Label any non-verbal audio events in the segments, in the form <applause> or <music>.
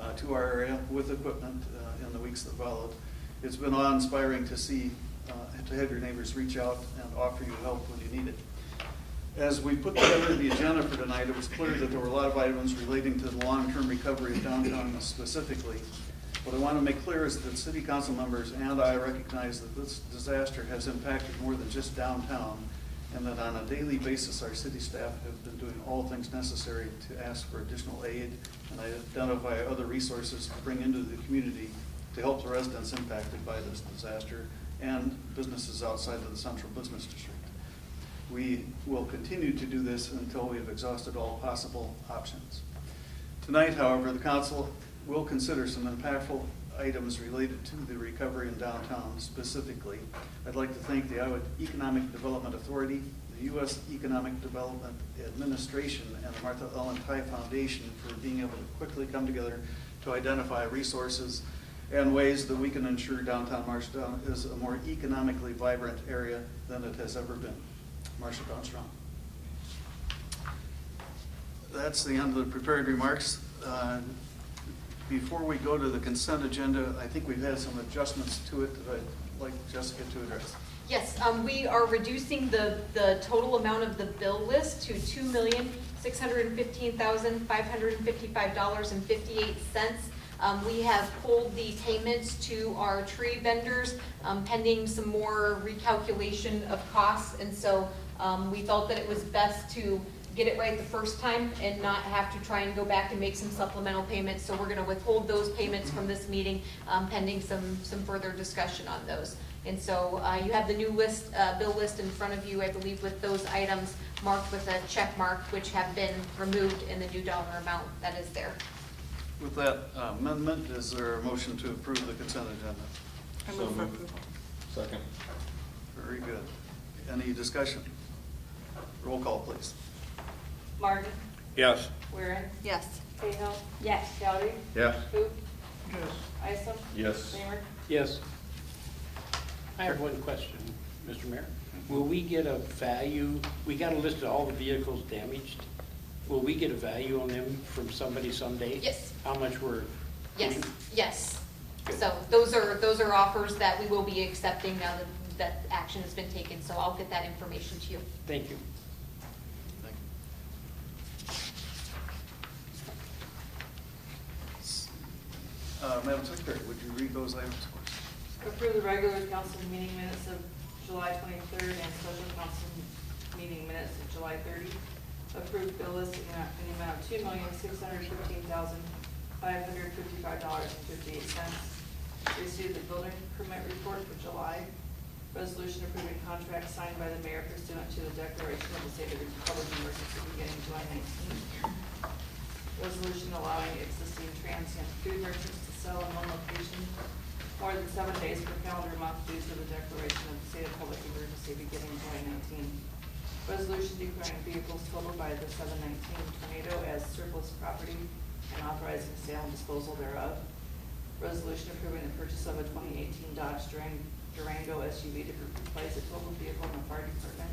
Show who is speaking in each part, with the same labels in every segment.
Speaker 1: uh, to our area with equipment uh, in the weeks that followed. It's been awe-inspiring to see, uh, to have your neighbors reach out and offer you help when you need it. As we put together the agenda for tonight, it was clear that there were a lot of items relating to the long-term recovery of downtown specifically. What I want to make clear is that city council members and I recognize that this disaster has impacted more than just downtown, and that on a daily basis, our city staff have been doing all things necessary to ask for additional aid and identify other resources to bring into the community to help the residents impacted by this disaster and businesses outside of the central business district. We will continue to do this until we have exhausted all possible options. Tonight, however, the council will consider some impactful items related to the recovery in downtown specifically. I'd like to thank the Iowa Economic Development Authority, the U.S. Economic Development Administration, and the Martha Ellen Ty Foundation for being able to quickly come together to identify resources and ways that we can ensure downtown Marshalltown is a more economically vibrant area than it has ever been. Marshalltown strong. That's the end of the prepared remarks. Uh, Before we go to the consent agenda, I think we've had some adjustments to it that I'd like Jessica to address.
Speaker 2: Yes, um, we are reducing the, the total amount of the bill list to two million, six hundred and fifteen thousand, five hundred and fifty-five dollars and fifty-eight cents. Um, we have pulled the payments to our tree vendors, um, pending some more recalculation of costs. And so, um, we felt that it was best to get it right the first time and not have to try and go back and make some supplemental payments. So we're gonna withhold those payments from this meeting, um, pending some, some further discussion on those. And so uh, you have the new list, uh, bill list in front of you, I believe, with those items marked with a check mark, which have been removed in the new dollar amount that is there.
Speaker 1: With that amendment, is there a motion to approve the consent agenda?
Speaker 3: I move for approval.
Speaker 4: Second.
Speaker 1: Very good. Any discussion? Roll call, please.
Speaker 5: Martin,
Speaker 4: Yes.
Speaker 5: Waring,
Speaker 3: Yes.
Speaker 5: Cahill,
Speaker 3: Yes.
Speaker 5: Goudy,
Speaker 4: Yes.
Speaker 5: Hoop,
Speaker 6: Yes.
Speaker 5: Isom.
Speaker 4: Yes.
Speaker 5: Reimer.
Speaker 6: Yes. I have one question, Mr. Mayor. Will we get a value, we got a list of all the vehicles damaged. Will we get a value on them from somebody someday?
Speaker 2: Yes.
Speaker 6: How much were?
Speaker 2: Yes, yes. So those are, those are offers that we will be accepting now that, that action has been taken. So I'll get that information to you.
Speaker 6: Thank you.
Speaker 1: Thank you. Uh, Madam Secretary, would you read those items for us?
Speaker 5: Approve the regular council meeting minutes of July twenty-third and special council meeting minutes of July thirty. Approve bill list in the amount- in the amount of two million, six hundred fifteen thousand, five hundred fifty-five dollars and fifty-eight cents. Receive the building permit report for July. Resolution approving contract signed by the mayor pursuant to the declaration of the state of Republic of emergency beginning July nineteenth. Resolution allowing existing transient food merchants to sell in one location more than seven days per calendar month due to the declaration of the state of public emergency beginning July 19. Resolution declaring vehicles totaled by the 719 tornado as surplus property and authorizing sale and disposal thereof. Resolution approving the purchase of a 2018 Dodge Duran- Durango SUV to replace a total vehicle in the fire department.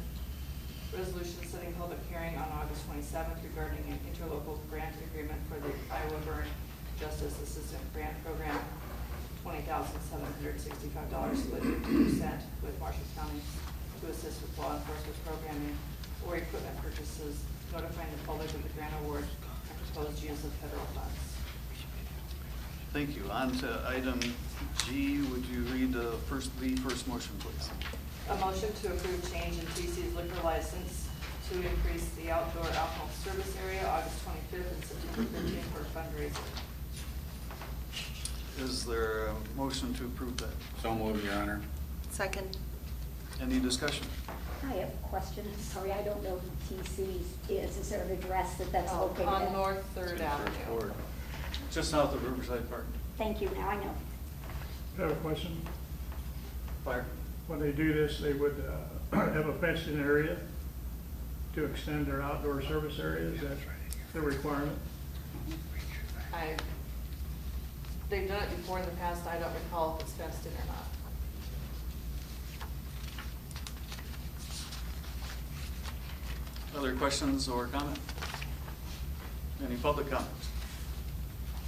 Speaker 5: Resolution setting public hearing on August 27th regarding an interlocal grant agreement for the Iowa Burn Justice Assistant Grant Program, $20,765 split 50% with Marshall County to assist with law enforcement programming or equipment purchases, notifying the public of the grant award and proposed use of federal funds.
Speaker 1: Thank you. On to item G, would you read the first, the first motion, please?
Speaker 5: A motion to approve change in TC's liquor license to increase the outdoor alcohol service area August twenty-fifth and September fifteenth for fundraiser.
Speaker 1: Is there a motion to approve that?
Speaker 4: So moved, Your Honor.
Speaker 3: Second.
Speaker 1: Any discussion?
Speaker 7: I have a question, sorry, I don't know who TC's is, is there an address that that's located at?
Speaker 5: Oh, On North Third Avenue.
Speaker 1: Or- Just south of Riverside Park.
Speaker 7: Thank you, now I know.
Speaker 8: I have a question.
Speaker 1: Fire.
Speaker 8: When they do this, they would uh, <clears throat> have a fenced-in area to extend their outdoor service area? Is that the requirement?
Speaker 5: I, they've done it before in the past, I don't recall if it's fenced in or not.
Speaker 1: Other questions or comment? Any public comments?